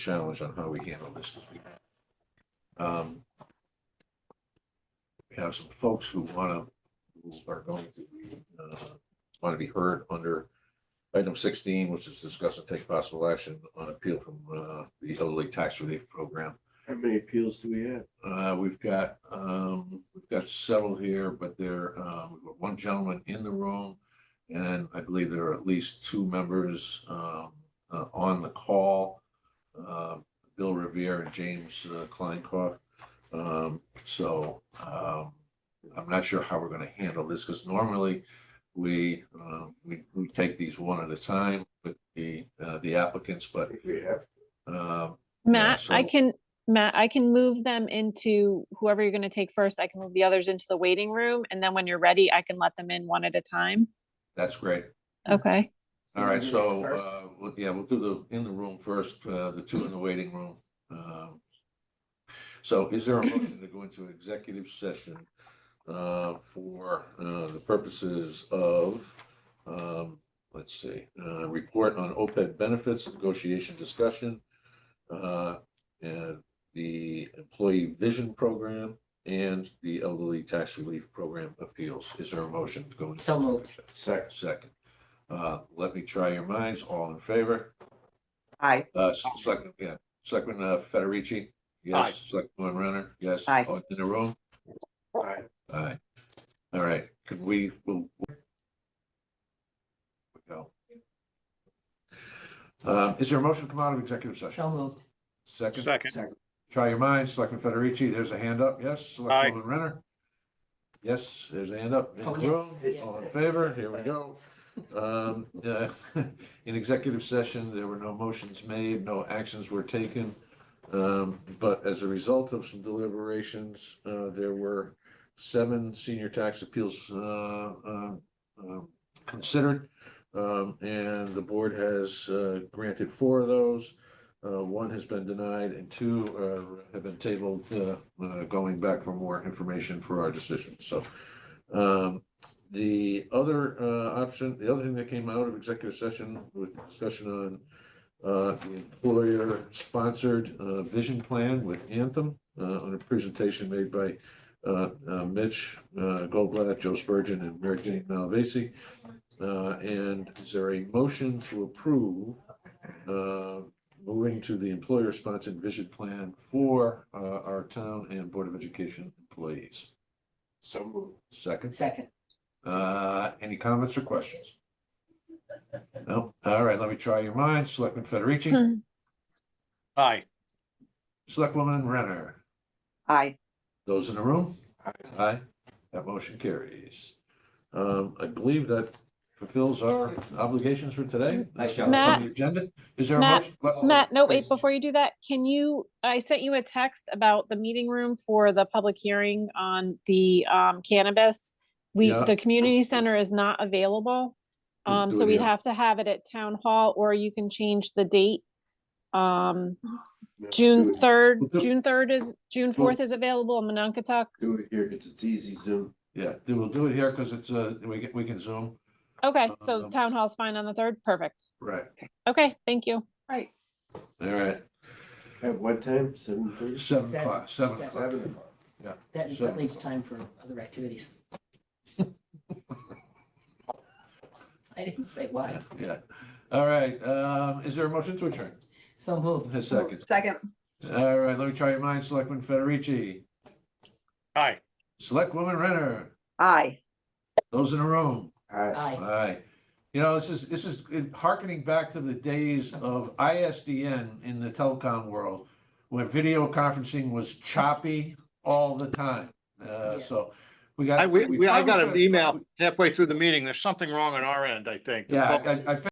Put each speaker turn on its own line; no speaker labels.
challenge on how we handle this this week. Um, We have some folks who wanna, who are going to, be, uh, wanna be heard under item sixteen, which is discuss and take possible action on appeal from, uh, the elderly tax relief program.
How many appeals do we have?
Uh, we've got, um, we've got several here, but there, uh, we've got one gentleman in the room. And I believe there are at least two members, um, uh, on the call. Uh, Bill Revere and James uh, Kleinkoff. Um, so, um, I'm not sure how we're gonna handle this, because normally we, uh, we, we take these one at a time with the, uh, the applicants,
I
but,
think we have.
um, Yeah,
Matt, I
so-
can, Matt, I can move them into whoever you're gonna take first. I can move the others into the waiting room, and then when you're ready, I can let them in one at a time.
that's great.
Okay,
All right,
You wanna
so,
do it first?
uh, we'll- yeah, we'll do the, in the room first, uh, the two in the waiting room. Um, So is there a motion to go into executive session, uh, for, uh, the purposes of, um, let's see, uh, report on OPEB benefits, negotiation discussion, uh, and the employee vision program and the elderly tax relief program appeals. Is there a motion to go into?
So moved.
executive session?
Second.
Second. Uh, let me try your minds. All in favor?
Aye.
Uh, Selectman, yeah, Selectman uh, Federici?
Aye.
Yes. Selectman Renner? Yes.
Aye.
All in the room?
Aye.
Aye. All right, can we, we'll. we'll- we go. Uh, is there a motion to come out of executive session?
So moved.
Second?
Second,
Second.
Try your minds. Selectman Federici, there's a hand up. Yes. Selectman Renner? Yes, there's a hand up. in
Oh,
the
yes,
room.
yes.
All in favor? Here we go. Um, uh, in executive session, there were no motions made, no actions were taken. Um, but as a result of some deliberations, uh, there were seven senior tax appeals, uh, uh, um, considered. Um, and the board has, uh, granted four of those. Uh, one has been denied and two, uh, have been tabled, uh, uh, going back for more information for our decision. So, um, the other uh option, the other thing that came out of executive session with discussion on uh the employer sponsored uh vision plan with Anthem uh on a presentation made by uh uh, Mitch uh Goldblatt, Joe Spurgeon and Mary Jane Malvasi. Uh and is there a motion to approve uh moving to the employer sponsored vision plan for uh our town and Board of Education employees?
So moved.
Second?
Second.
Uh, any comments or questions? No, all right, let me try your minds, Selectman
Hmm.
Federici,
aye.
Selectwoman Renner,
Aye.
those in the room?
Aye.
Aye, that motion carries. Um, I believe that fulfills our obligations for today.
I shall-
That's on
Matt?
the Agenda, is there a
Matt?
motion? Well, oh,
Matt, no, wait,
please.
before you do that, can you, I sent you a text about the meeting room for the public hearing on the um cannabis. We,
Yeah.
the community center is not available,
We'll
um,
do
so
it
we'd
here.
have to have it at town hall, or you can change the date. Um,
No,
June
do it-
third,
We'll do-
June third is, June fourth is available in Mononkatuk.
Do it here, it's, it's easy Zoom.
Yeah, then we'll do it here, because it's, uh, we can, we can zoom.
Okay, so
Um,
town hall's fine on the third, perfect.
Right.
Okay, thank you.
Right.
All right,
At what time? Seven thirty?
seven
Seven,
o'clock, seven
seven.
o'clock.
Seven o'clock.
That,
So-
that leaves time for other activities. I didn't say why.
Yeah, Yeah, all right, um, is there a motion to adjourn?
So moved.
A second.
Second.
All right, let me try your minds, Selectman Federici,
Aye.
Selectwoman Renner,
Aye.
those in the room.
Aye.
Aye.
Aye. You know, this is, this is harkening back to the days of ISDN in the telecom world, where video conferencing was choppy all the time. Uh,
Yeah.
so we got.
I, we, we- I got
probably
an
should-
email halfway through the meeting. There's something wrong on our end, I think. The
Yeah,
phone-
I, I- I